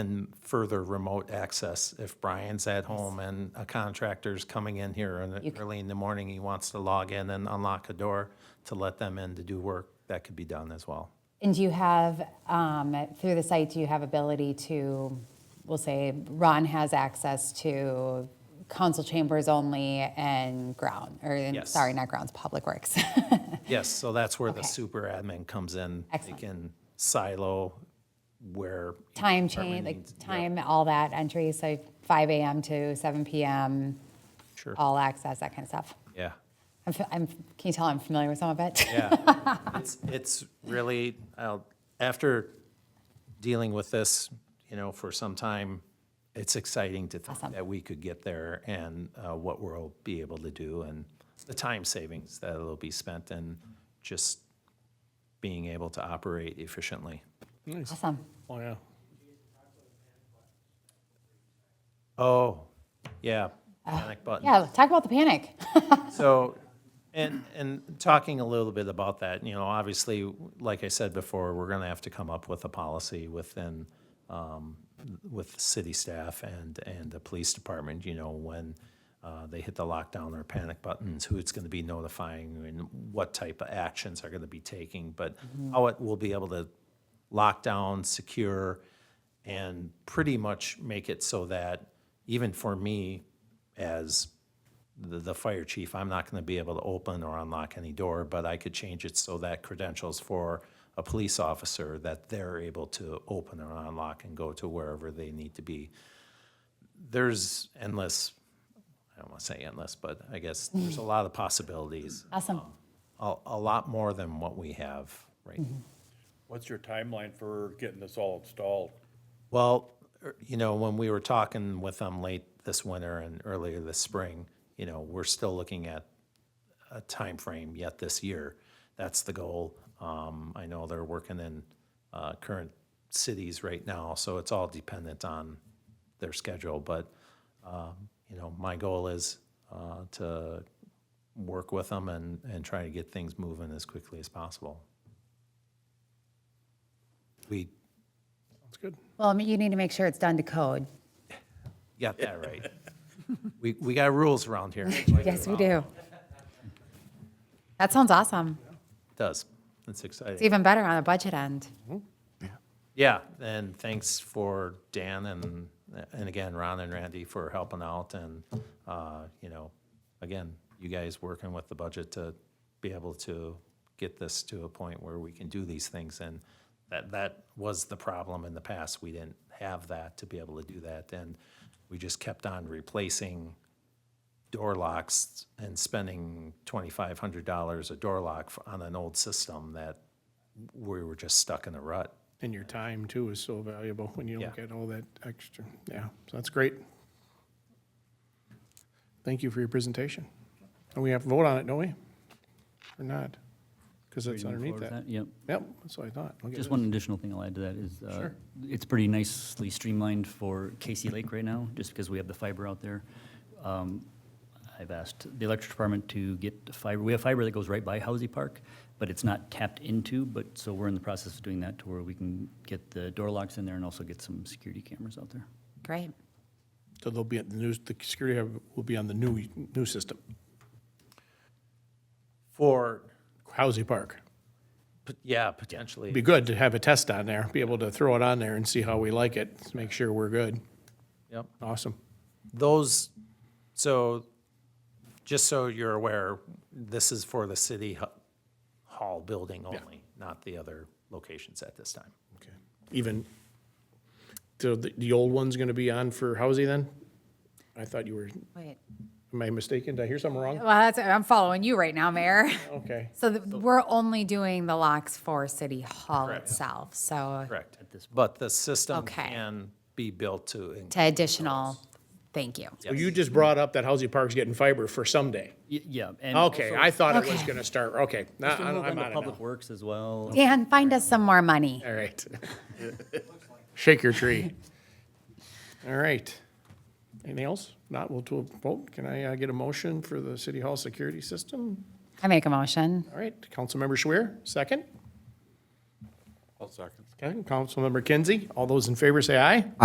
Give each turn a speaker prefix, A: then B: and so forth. A: and further remote access. If Brian's at home and a contractor's coming in here and early in the morning, he wants to log in and unlock a door to let them in to do work, that could be done as well.
B: And do you have, um, through the site, do you have ability to, we'll say, Ron has access to council chambers only and ground, or, and-
A: Yes.
B: sorry, not grounds, public works.
A: Yes, so that's where the
B: Okay.
A: super admin comes in. They
B: Excellent.
A: can silo where. each
B: Time
A: department
B: change, like
A: needs- yeah,
B: time, all that entry, so 5 AM to 7 PM,
A: Sure,
B: all access, that kind of stuff.
A: yeah,
B: I'm, f- I'm, can you tell I'm familiar with some of it?
A: yeah. It's, it's really, I'll- after dealing with this, you know, for some time, it's exciting to think that we could get there and uh, what we'll be able to do and the time savings that'll be spent and just being able to operate efficiently.
B: Awesome.
C: Oh, yeah.
A: Oh, yeah, panic button.
B: Yeah, talk about the panic.
A: So, and, and talking a little bit about that, you know, obviously, like I said before, we're gonna have to come up with a policy within, um, with city staff and, and the police department, you know, when, uh, they hit the lockdown or panic buttons, who it's gonna be notifying and what type of actions are gonna be taking, but how it will be able to lock down, secure, and pretty much make it so that even for me as the, the fire chief, I'm not gonna be able to open or unlock any door, but I could change it so that credentials for a police officer, that they're able to open or unlock and go to wherever they need to be. There's endless, I don't wanna say endless, but I guess there's a lot of possibilities.
B: Awesome.
A: A, a lot more than what we have right now.
C: What's your timeline for getting this all installed?
A: Well, er, you know, when we were talking with them late this winter and earlier this spring, you know, we're still looking at a time frame yet this year. That's the goal. Um, I know they're working in uh, current cities right now, so it's all dependent on their schedule. But um, you know, my goal is uh, to work with them and and try to get things moving as quickly as possible. We
C: That's good.
B: Well, I mean, you need to make sure it's done to code.
A: Got that right. We, we got rules around here.
B: Yes, we do. That sounds awesome.
A: Does. That's
B: It's
A: exciting.
B: even better on a budget end.
A: Yeah, and thanks for Dan and, and again, Ron and Randy for helping out and, uh, you know, again, you guys working with the budget to be able to get this to a point where we can do these things. And that, that was the problem in the past. We didn't have that to be able to do that. And we just kept on replacing door locks and spending twenty-five hundred dollars a door lock for- on an old system that we were just stuck in a rut.
C: And your time too is so valuable when you don't
A: Yeah.
C: get all that extra. Yeah, so that's great. Thank you for your presentation. And we have to vote on it, don't we? Or not? Because it's
D: Moving
C: underneath
D: forward
C: that.
D: with Yep.
C: Yep, that's what I thought. Look at
D: Just
C: this.
D: one additional thing I'll add to that is, uh,
C: Sure.
D: it's pretty nicely streamlined for Casey Lake right now, just because we have the fiber out there. Um, I've asked the electric department to get fiber, we have fiber that goes right by Housie Park, but it's not tapped into, but, so we're in the process of doing that to where we can get the door locks in there and also get some security cameras out there.
B: Great.
C: So they'll be at the news, the security hub will be on the new, new system,
A: For,
C: Housy Park.
A: p- yeah, potentially.
C: It'd be good to have a test on there, be able to throw it on there and see how we like it, to make sure we're good.
A: Yep.
C: Awesome.
A: Those, so, just so you're aware, this is for the city hu- hall building only, not the other locations at this time.
C: Okay. Even, so the, the old one's gonna be on for Housie then? I thought you were,
B: Wait.
C: am I mistaken? Did I hear something wrong?
B: Well, that's, I'm following you right now, Mayor.
C: Okay.
B: So th- we're only doing the locks for City Hall itself, so
A: Correct. But the system
B: Okay.
A: can be built to, in-
B: to additional, thank you.
C: So you just brought up that Housie Park's getting fiber for someday.
D: Y- Yeah. and
C: Okay,
D: also-
C: I thought it was
B: Okay.
C: gonna start, okay. Nah,
D: Just gonna move
C: I'm
D: on to
C: on it
D: Public
C: now.
D: Works as well.
B: Dan, find us some more money.
C: All right. Shake your tree. All right. Anything else? Not, we'll do a vote. Can I uh, get a motion for the City Hall security system?
B: I make a motion.
C: All right, Councilmember Schwer, second.
E: I'll second.
C: Okay, Councilmember Kinsey, all those in favor say aye.